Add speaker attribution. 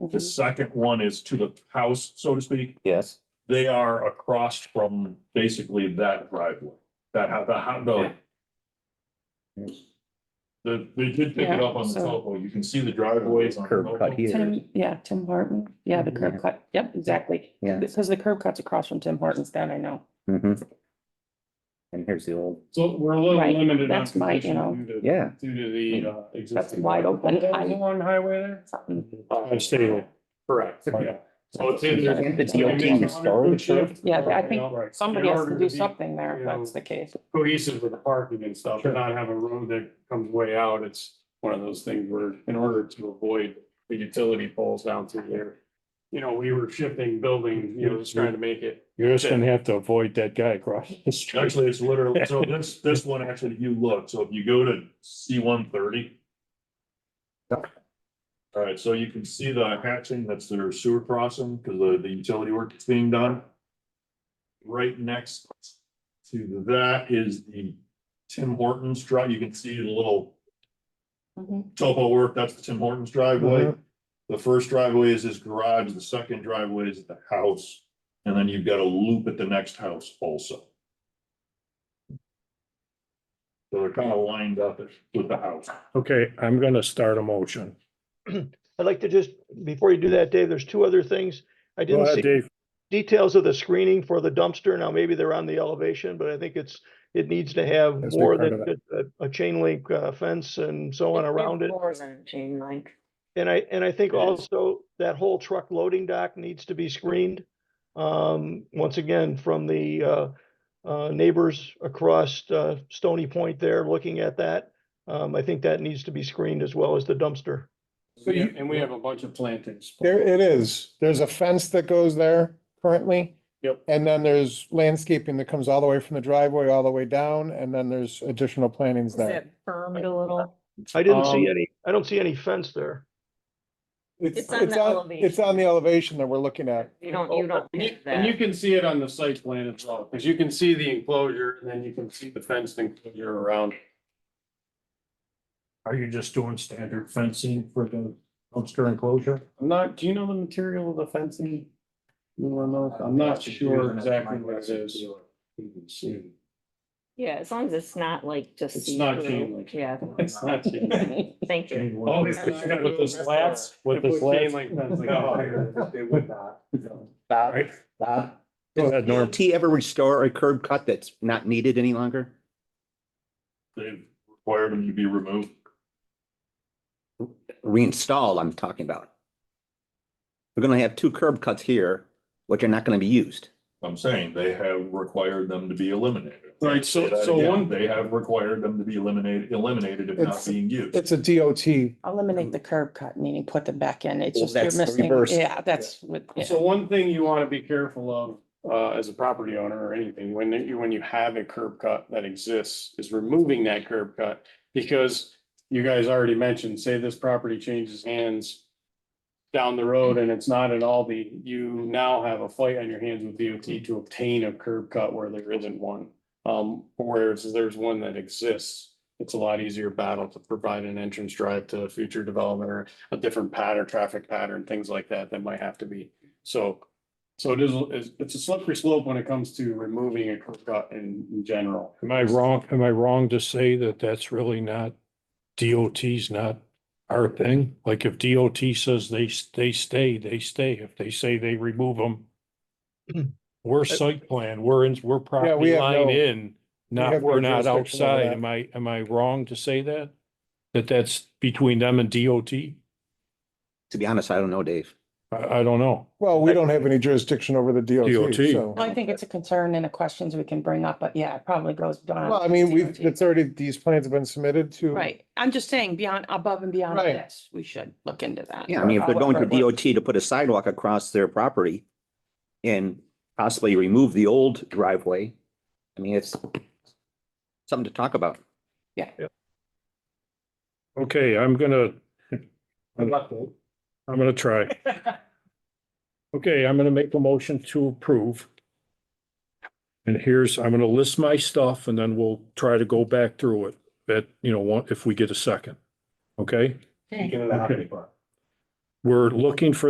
Speaker 1: The
Speaker 2: Mhm.
Speaker 1: second one is to the house, so to speak.
Speaker 3: Yes,
Speaker 1: They are across from basically that driveway, that how the how the. The, they did pick it
Speaker 2: Yeah,
Speaker 1: up on the
Speaker 2: so-
Speaker 1: topo. You can see the driveways on. the
Speaker 3: curb cut
Speaker 1: topo.
Speaker 3: here.
Speaker 2: Tim, yeah, Tim Horton, yeah, the curb cut, yep, exactly.
Speaker 3: Mhm. Yeah.
Speaker 2: Because the curb cuts across from Tim Hortons down, I know.
Speaker 3: Mhm. And here's the old,
Speaker 4: So we're a little
Speaker 2: Right,
Speaker 4: limited on
Speaker 2: that's my, you know,
Speaker 4: position due to,
Speaker 3: yeah,
Speaker 4: due to the uh, existing.
Speaker 2: wide open.
Speaker 4: Is that the One highway there?
Speaker 2: Something,
Speaker 4: Uh, stable. Correct,
Speaker 1: Oh,
Speaker 4: yeah. So it's either.
Speaker 3: Can't the
Speaker 4: you
Speaker 3: DOT
Speaker 4: can make a
Speaker 3: restore the
Speaker 4: hundred-foot shift
Speaker 2: Yeah, I
Speaker 4: or
Speaker 2: think
Speaker 4: outright.
Speaker 2: Somebody
Speaker 4: In
Speaker 2: has
Speaker 4: order
Speaker 2: to do
Speaker 4: be
Speaker 2: something there if that's the case.
Speaker 4: Cohesive with the parking and stuff, and not have a road that comes way out, it's one of those things where, in order to avoid the utility poles down through there. You know, we were shifting buildings, you know, just trying to make it.
Speaker 5: You're just gonna have to avoid that guy across the street.
Speaker 1: Actually, it's literally, so this, this one, actually, if you look, so if you go to C one thirty. All right, so you can see the hatching, that's their sewer crossing, because the, the utility work is being done. Right next to that is the Tim Hortons drive, you can see the little
Speaker 6: Mm-hmm.
Speaker 2: Mhm.
Speaker 1: topo work, that's the Tim Hortons
Speaker 5: Uh-huh.
Speaker 1: driveway. The first driveway is his garage, the second driveway is the house, and then you've got a loop at the next house also. So they're kind of lined up with the house.
Speaker 5: Okay, I'm gonna start a motion.
Speaker 7: I'd like to just, before you do that, Dave, there's two other things. I
Speaker 5: Go
Speaker 7: didn't
Speaker 5: ahead,
Speaker 7: see
Speaker 5: Dave.
Speaker 7: details of the screening for the dumpster. Now, maybe they're on the elevation, but I think it's, it needs to have
Speaker 5: That's a big
Speaker 7: more
Speaker 5: part
Speaker 7: than just a, a chain link uh, fence and so on around it.
Speaker 6: More than chain link.
Speaker 7: And I, and I think
Speaker 4: It is.
Speaker 7: also that whole truck loading dock needs to be screened. Um, once again, from the, uh, uh, neighbors across, uh, Stony Point there, looking at that. Um, I think that needs to be screened as well as the dumpster.
Speaker 5: So you-
Speaker 4: And we have a bunch of plantings.
Speaker 8: There it is. There's a fence that goes there currently.
Speaker 4: Yep.
Speaker 8: And then there's landscaping that comes all the way from the driveway all the way down, and then there's additional plantings
Speaker 6: Is
Speaker 8: there.
Speaker 6: that bermed a little?
Speaker 7: I didn't see
Speaker 4: Um,
Speaker 7: any, I don't see any fence there.
Speaker 6: It's on the elevation.
Speaker 8: It's on the elevation that we're looking at.
Speaker 6: You don't, you
Speaker 1: Oh,
Speaker 6: don't
Speaker 4: And you-
Speaker 6: have
Speaker 4: and you
Speaker 6: that.
Speaker 4: can see it on the site plan as well, because you can see the enclosure and then you can see the fenced enclosure around.
Speaker 5: Are you just doing standard fencing for the dumpster enclosure?
Speaker 4: I'm not, do you know the material of the fencing? You wanna know? I'm not sure exactly what it is.
Speaker 6: Yeah, as long as it's not like just.
Speaker 4: It's not
Speaker 6: see-through.
Speaker 4: chain link.
Speaker 6: Yeah,
Speaker 4: It's not chain link.
Speaker 6: thank you.
Speaker 4: Oh, it's not with the slats,
Speaker 5: With
Speaker 4: They
Speaker 5: the
Speaker 4: put chain
Speaker 5: slats?
Speaker 4: link fence, like,
Speaker 5: No.
Speaker 4: They would not.
Speaker 3: Bob,
Speaker 5: Right.
Speaker 3: Bob,
Speaker 5: Go ahead, Norm.
Speaker 3: does T ever restore a curb cut that's not needed any longer?
Speaker 1: They've required them to be removed.
Speaker 3: Reinstall, I'm talking about. We're gonna have two curb cuts here, which are not gonna be used.
Speaker 1: I'm saying they have required them them to be eliminated.
Speaker 4: Right, so-
Speaker 1: Say that
Speaker 4: so
Speaker 1: again.
Speaker 4: one-
Speaker 1: They have required them to be eliminated, eliminated if not
Speaker 8: It's-
Speaker 1: being used.
Speaker 8: It's a DOT.
Speaker 2: Eliminate the curb cut, meaning put them back in. It's
Speaker 3: Well,
Speaker 2: just you're
Speaker 3: that's the
Speaker 2: missing,
Speaker 3: reverse.
Speaker 2: yeah, that's with, yeah.
Speaker 4: So one thing you wanna be careful of, uh, as a property owner or anything, when you, when you have a curb cut that exists, is removing that curb cut. Because you guys already mentioned, say this property changes hands down the road and it's not at all the, you now have a fight on your hands with DOT to obtain a curb cut where there isn't one. Um, whereas there's one that exists, it's a lot easier battle to provide an entrance drive to future development or a different pattern, traffic pattern, things like that, that might have to be. So, so it is, it's- it's a slippery slope when it comes to removing a curb cut in, in general.
Speaker 5: Am I wrong, am I wrong to say that that's really not, DOT's not our thing? Like if DOT says they, s- they stay, they stay. If they say they remove them, we're site plan, we're in, we're property
Speaker 8: have
Speaker 5: line
Speaker 8: no-
Speaker 5: in, not,
Speaker 8: have no
Speaker 5: we're not
Speaker 8: jurisdiction over
Speaker 5: outside.
Speaker 8: that.
Speaker 5: Am I, am I wrong to say that? That that's between them and DOT?
Speaker 3: To be honest, I don't know, Dave.
Speaker 5: I, I don't know.
Speaker 8: Well, we don't have any jurisdiction over the DOT,
Speaker 5: DOT.
Speaker 8: so.
Speaker 2: Well, I think it's a concern and the questions we can bring up, but yeah, it probably goes beyond.
Speaker 8: Well, I mean, we've,
Speaker 2: DOT.
Speaker 8: it's already, these plans have been submitted to.
Speaker 2: Right, I'm just saying beyond, above and beyond
Speaker 8: Right.
Speaker 2: this, we should look into that.
Speaker 3: Yeah, I mean, if they're going to
Speaker 2: However,
Speaker 3: DOT to put a sidewalk across their property and possibly remove the old driveway, I mean, it's something to talk about.
Speaker 5: Okay, I'm gonna, I'm gonna try. Okay, I'm gonna make a motion to approve. And here's, I'm gonna list my stuff and then we'll try to go back through it, that, you know, one- if we get a second. Okay?
Speaker 4: Get it out of the park.
Speaker 5: We're looking for